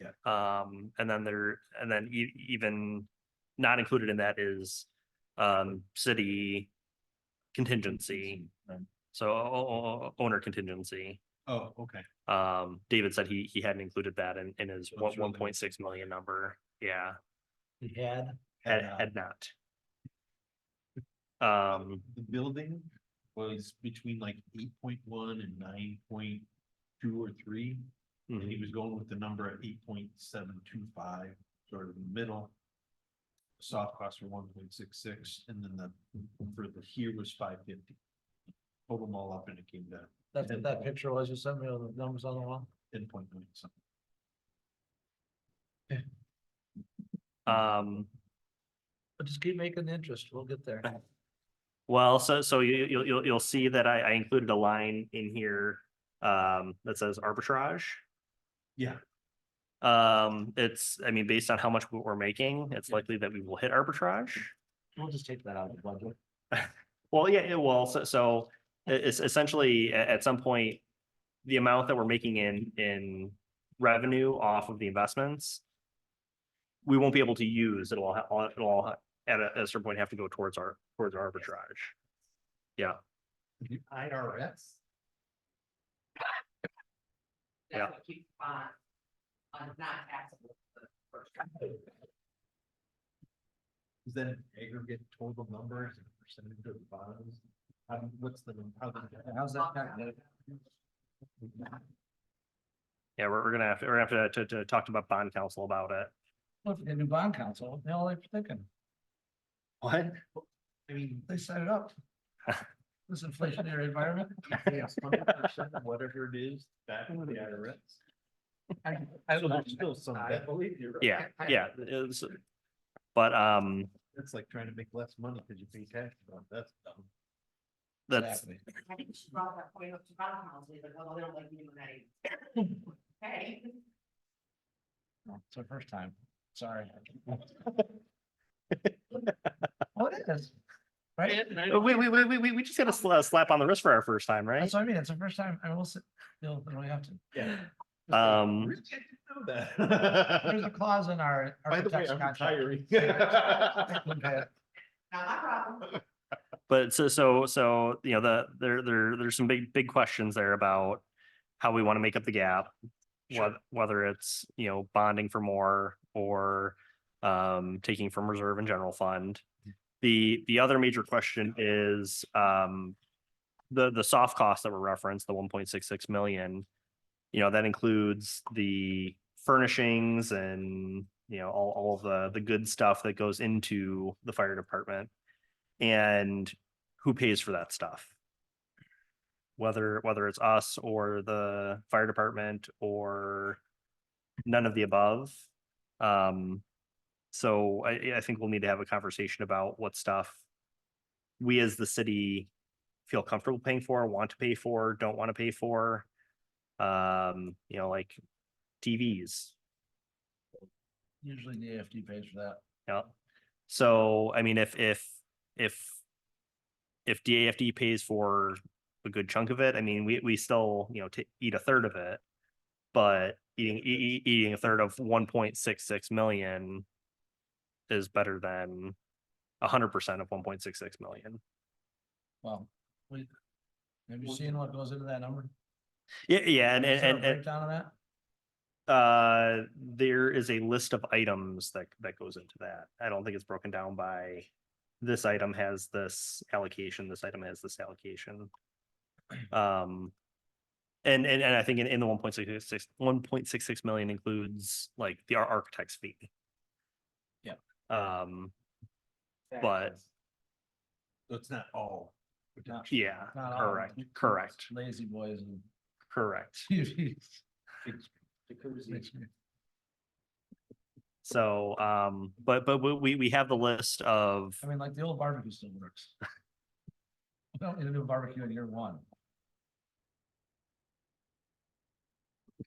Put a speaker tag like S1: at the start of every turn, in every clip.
S1: Yeah.
S2: Um, and then there, and then e- even not included in that is um, city contingency. So o- o- owner contingency.
S1: Oh, okay.
S2: Um, David said he, he hadn't included that in, in his
S1: So
S2: one,
S1: it's really-
S2: one point six million number. Yeah,
S3: He had,
S2: had,
S1: And, uh,
S2: had not. Um,
S1: The building was between like eight point one and nine point two or three. And
S2: mhm.
S1: he was going with the number at eight point seven two five, sort of in the middle. Soft costs were one point six six, and then the, for the here was five fifty. Total them all up and it came to
S3: that's what that picture was, you sent me all the numbers on the wall.
S1: ten point nine something.
S2: um,
S3: But just keep making the interest, we'll get there.
S2: well, so, so you, you'll, you'll, you'll see that I, I included a line in here. Um, that says arbitrage.
S1: Yeah,
S2: Um, it's, I mean, based on how much we're making, it's likely that we will hit arbitrage.
S3: We'll just take that out of the budget.
S2: Well, yeah, it will. So, so e- es- essentially, a- at some point, the amount that we're making in, in revenue off of the investments, we won't be able to use, it'll, all- all- it'll, all at a, at a certain point have to go towards our, towards our arbitrage.
S1: the IRS.
S2: Yeah.
S4: That's what keeps on, on not taxable. for the first time.
S1: Is that an aggregate total number as a percentage of the bonds? How, do- what's the, how, the- how's that calculated?
S2: Yeah, we're, we're gonna have to, we're gonna have to, to, to talk to about bond council about it.
S3: Look, the new bond council, they all they're thinking,
S2: What?
S1: I mean,
S3: they set it up. This inflationary environment,
S1: yes, hundred percent of whatever it is, that would be IRS.
S3: I, I,
S1: So there's still some,
S3: I
S1: that-
S3: believe you.
S2: Yeah, yeah. it's- But, um,
S1: that's like trying to make less money because you pay tax on, it. that's dumb.
S2: that's,
S4: I think she brought that point up to bottom house, like, oh, they don't like me when I. Hey,
S3: Oh, It's our first time, sorry. What is? Right?
S2: Uh, we, we, we, we- we, we just got a sla- slap on the wrist for our first time, right?
S3: That's what I mean, it's the first time, I will sit, you'll, you'll have to.
S1: Yeah.
S2: Um,
S1: Really? I didn't know that.
S3: There's a clause in our. our
S1: By the way,
S3: protection
S1: I'm
S3: contract.
S1: retiring.
S3: Okay.
S4: not my problem.
S2: But so, so, so, you know, the, there, there, there's some big, big questions there about how we want to make up the gap.
S1: Sure.
S2: wheth- Whether it's, you know, bonding for more or um, taking from reserve and general fund. The, the other major question is um, the, the soft costs that were referenced, the one point six six million. You know, that includes the furnishings and, you know, all, all of the, the good stuff that goes into the fire department. And who pays for that stuff? Whether, whether it's us or the fire department or none of the above. Um, so I, I think we'll need to have a conversation about what stuff we as the city feel comfortable paying for, want to pay for, don't want to pay for. Um, you know, like TVs,
S3: Usually the AFD pays for that.
S2: yeah. So, I mean, if, if, if, if DAFD pays for a good chunk of it, I mean, we, we still, you know, to eat a third of it. But eating, e- e- eating a third of one point six six million is better than a hundred percent of one point six six million.
S3: Well, we, have you seen what goes into that number?
S2: Yeah, yeah, and,
S3: Is there a
S2: and, and,
S3: Breakdown of that?
S2: uh, there is a list of items that, that goes into that. I don't think it's broken down by this item has this allocation, this item has this allocation. Um, and, and, and I think in, in the 1.66 1.66 million includes like the ar- architect's fee.
S3: Yeah.
S2: Um, But-
S1: So it's not all.
S3: Not-
S2: yeah,
S3: not all of
S2: correct,
S3: them.
S2: correct,
S3: Lazy boys and
S2: correct.
S3: TVs.
S1: Jacuzzi.
S2: So, um, but, but we- we, we have the list of,
S3: I mean, like the old barbecue still works. We don't need a new barbecue in year one.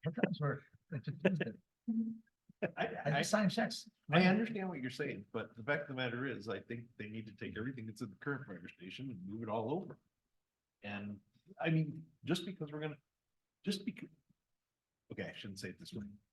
S3: Sometimes we're, they just use it.
S1: I,
S3: I
S1: I,
S3: just sign checks.
S1: I understand what you're saying, but the fact of the matter is, I think they need to take everything that's in the current fire station and move it all over. And, I mean, just because we're gonna, just because. Okay, I shouldn't say it this way.